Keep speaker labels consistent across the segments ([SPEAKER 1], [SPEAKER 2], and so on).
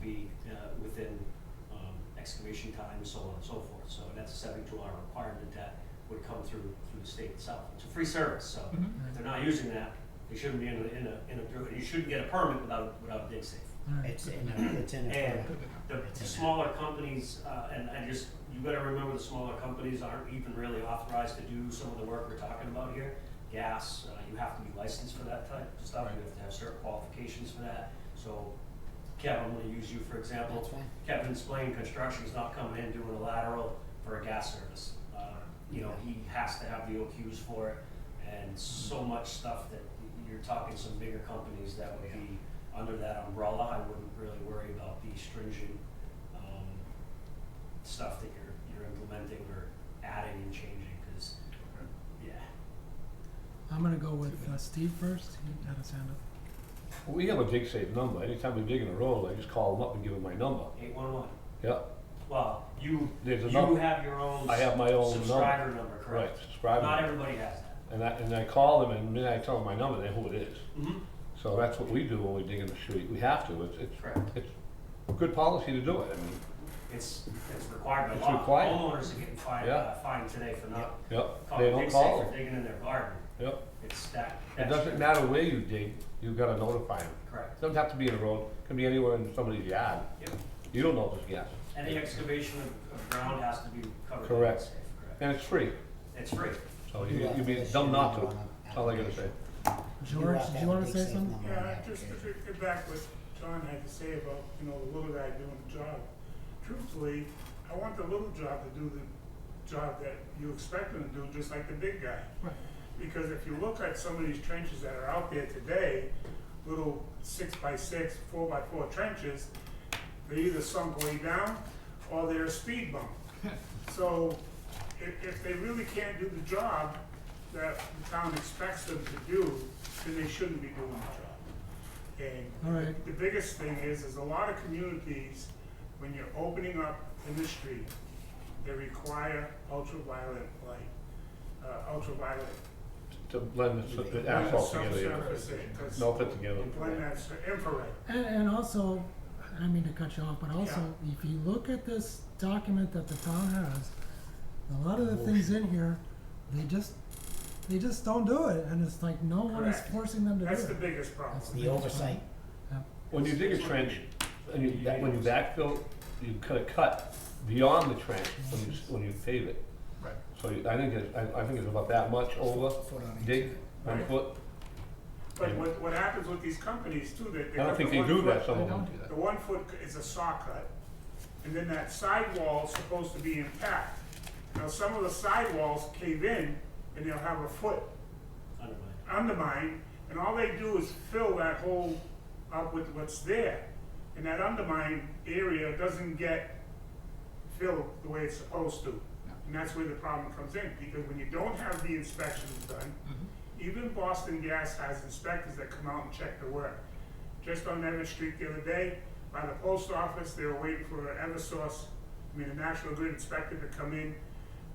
[SPEAKER 1] be uh, within um, excavation time and so on and so forth. So that's a seventy-two hour requirement that would come through, through the state itself. It's a free service, so
[SPEAKER 2] Mhm.
[SPEAKER 1] if they're not using that, they shouldn't be in a, in a, in a, you shouldn't get a permit without, without a dig safe.
[SPEAKER 3] It's in a, it's in a.
[SPEAKER 1] And
[SPEAKER 3] photo.
[SPEAKER 1] the, the smaller companies, uh, and I just, you gotta remember the smaller companies aren't even really authorized to do some of the work we're talking about here. Gas, uh, you have to be licensed for that type of stuff, you have to have certain qualifications for that, so Kevin, I'm gonna use you for example.
[SPEAKER 3] That's fine.
[SPEAKER 1] Kevin's Blaine Construction's not coming in doing a lateral for a gas service. Uh, You know, he has to have the OQs for it, and so much stuff that y- you're talking some bigger companies that would be under that umbrella. I wouldn't really worry about the stringent, um, stuff that you're, you're implementing or adding and changing, cause, yeah.
[SPEAKER 2] I'm gonna go with uh, Steve first. He had his hand up.
[SPEAKER 4] We have a dig safe number. Anytime we dig in a road, I just call them up and give them my number.
[SPEAKER 1] Eight one one,
[SPEAKER 4] Yeah,
[SPEAKER 1] well, you,
[SPEAKER 4] There's a
[SPEAKER 1] you
[SPEAKER 4] number.
[SPEAKER 1] have your own.
[SPEAKER 4] I have my own number.
[SPEAKER 1] Subscriber number,
[SPEAKER 4] right,
[SPEAKER 1] correct?
[SPEAKER 4] subscribe.
[SPEAKER 1] Not
[SPEAKER 4] them.
[SPEAKER 1] everybody has that.
[SPEAKER 4] And I, and I call them and then I tell them my number, they know who it is.
[SPEAKER 1] Mm-hmm.
[SPEAKER 4] So that's what we do when we dig in the street. We have to. It's, it's,
[SPEAKER 1] Correct.
[SPEAKER 4] it's good policy to do it. I mean,
[SPEAKER 1] It's, it's required by
[SPEAKER 4] It's
[SPEAKER 1] law.
[SPEAKER 4] required.
[SPEAKER 1] Homeowners are getting fined,
[SPEAKER 4] Yeah.
[SPEAKER 1] uh, fined today for not
[SPEAKER 4] yep, they
[SPEAKER 1] calling
[SPEAKER 4] don't
[SPEAKER 1] dig safe
[SPEAKER 4] call
[SPEAKER 1] for
[SPEAKER 4] them.
[SPEAKER 1] digging in their garden.
[SPEAKER 4] Yep.
[SPEAKER 1] It's that,
[SPEAKER 4] It
[SPEAKER 1] that's.
[SPEAKER 4] doesn't matter where you dig, you've gotta notify them.
[SPEAKER 1] Correct.
[SPEAKER 4] Doesn't have to be in a road, can be anywhere in somebody's yard.
[SPEAKER 1] Yep.
[SPEAKER 4] You don't know this gas.
[SPEAKER 1] Any excavation of, of ground has to be covered. by
[SPEAKER 4] Correct.
[SPEAKER 1] safe, Correct.
[SPEAKER 4] And it's free,
[SPEAKER 1] It's free.
[SPEAKER 4] so
[SPEAKER 3] You
[SPEAKER 4] you-
[SPEAKER 3] have
[SPEAKER 4] you'd be
[SPEAKER 3] to issue
[SPEAKER 4] dumb not
[SPEAKER 3] a
[SPEAKER 4] to.
[SPEAKER 3] number on
[SPEAKER 4] That's all I gotta say.
[SPEAKER 2] George,
[SPEAKER 3] have
[SPEAKER 2] did
[SPEAKER 3] to
[SPEAKER 2] you
[SPEAKER 3] have a
[SPEAKER 2] want to
[SPEAKER 3] big
[SPEAKER 2] say
[SPEAKER 3] safe
[SPEAKER 2] something?
[SPEAKER 3] number on
[SPEAKER 5] Yeah,
[SPEAKER 3] the
[SPEAKER 5] just to
[SPEAKER 3] application.
[SPEAKER 5] get back what John had to say about, you know, the little guy doing the job. Truthfully, I want the little job to do the job that you expect him to do, just like the big guy.
[SPEAKER 2] Right.
[SPEAKER 5] Because if you look at some of these trenches that are out there today, little six by six, four by four trenches, they either sunk way down or they're a speed bump. So if, if they really can't do the job that the town expects them to do, then they shouldn't be doing the job. And
[SPEAKER 2] All right.
[SPEAKER 5] the biggest thing is, is a lot of communities, when you're opening up industry, they require ultraviolet light, uh, ultraviolet.
[SPEAKER 4] To blend the s- the
[SPEAKER 5] blend the
[SPEAKER 4] asphalt together, yeah.
[SPEAKER 5] subsurface in, 'cause
[SPEAKER 4] melt it together.
[SPEAKER 5] you Blend that s- infrared.
[SPEAKER 2] And, and also, I didn't mean to cut you off, but also, if you look at this document that the town has, a lot of the things in here, they just, they just don't do it, and it's like no one is
[SPEAKER 5] Correct.
[SPEAKER 2] forcing them to do it.
[SPEAKER 5] That's the biggest problem.
[SPEAKER 2] That's
[SPEAKER 3] The oversight,
[SPEAKER 2] Yeah.
[SPEAKER 4] When you dig a trench, and you, back- when you backfill, you cut a cut beyond the trench when you, s- when you pave it.
[SPEAKER 5] Right.
[SPEAKER 4] So you- I think it's, I, I think it's about that much over,
[SPEAKER 3] foot on each.
[SPEAKER 4] dig, one
[SPEAKER 5] Right.
[SPEAKER 4] foot.
[SPEAKER 5] But what, what happens with these companies too, that
[SPEAKER 4] I
[SPEAKER 5] they
[SPEAKER 4] don't
[SPEAKER 5] have the
[SPEAKER 4] think they
[SPEAKER 5] one
[SPEAKER 4] do that,
[SPEAKER 5] foot-
[SPEAKER 4] some of them do
[SPEAKER 5] The
[SPEAKER 4] that.
[SPEAKER 5] one foot c- is a saw cut, and then that sidewall's supposed to be intact. Now, some of the sidewalls cave in, and they'll have a foot
[SPEAKER 1] Undermined.
[SPEAKER 5] undermined, and all they do is fill that hole up with what's there. And that undermined area doesn't get filled the way it's supposed to. And that's where the problem comes in, because when you don't have the inspections done, even Boston Gas has inspectors that come out and check the work. Just on Everett Street the other day, by the post office, they were waiting for Eversource, I mean, the National Grid inspector to come in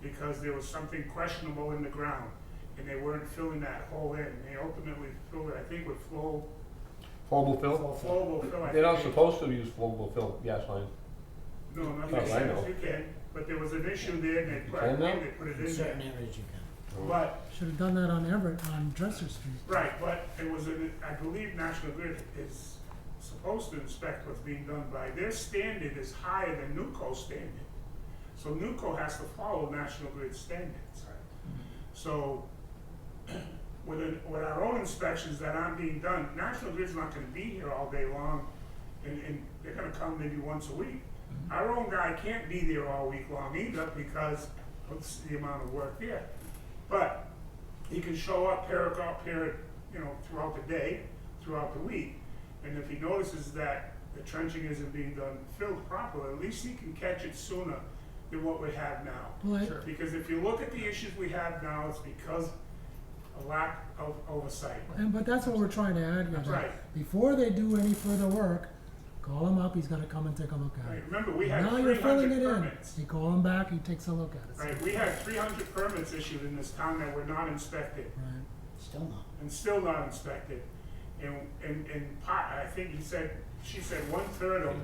[SPEAKER 5] because there was something questionable in the ground, and they weren't filling that hole in. They ultimately filled it, I think, with flow,
[SPEAKER 4] Flowable fill?
[SPEAKER 5] flowable fill. I
[SPEAKER 4] They're not
[SPEAKER 5] think.
[SPEAKER 4] supposed to use flowable fill gas line.
[SPEAKER 5] No, not
[SPEAKER 4] Oh, I
[SPEAKER 5] that
[SPEAKER 4] know.
[SPEAKER 5] you can, but there was an issue there, and they, put- I
[SPEAKER 4] can now?
[SPEAKER 5] think they put it
[SPEAKER 3] in
[SPEAKER 5] in there.
[SPEAKER 3] certain areas you can.
[SPEAKER 5] But
[SPEAKER 2] Should have done that on Everett, on Dresser Street.
[SPEAKER 5] Right, but it was, an- I believe National Grid is supposed to inspect what's being done by, their standard is higher than NUCO's standard. So NUCO has to follow National Grid standards. So with, an- with our own inspections that aren't being done, National Grid's not gonna be here all day long and, and they're gonna come maybe once a week. Our own guy can't be there all week long either because of the amount of work there. But he can show up, pair up, pair, you know, throughout the day, throughout the week. And if he notices that the trenching isn't being done filled properly, at least he can catch it sooner than what we have now.
[SPEAKER 2] Well, I-
[SPEAKER 5] Because if you look at the issues we have now, it's because a lack of oversight.
[SPEAKER 2] And, but that's what we're trying to add here, that
[SPEAKER 5] Right.
[SPEAKER 2] before they do any further work, call him up, he's gotta come and take a look at
[SPEAKER 5] Right,
[SPEAKER 2] it.
[SPEAKER 5] remember, we had
[SPEAKER 2] Now
[SPEAKER 5] three
[SPEAKER 2] you're filling it
[SPEAKER 5] hundred
[SPEAKER 2] in,
[SPEAKER 5] permits.
[SPEAKER 2] you call him back, he takes a look at it.
[SPEAKER 5] Right, we had three hundred permits issued in this town that were not inspected.
[SPEAKER 2] Right.
[SPEAKER 3] Still not.
[SPEAKER 5] and still not inspected. And, and, and part, I think he said, she said one-third of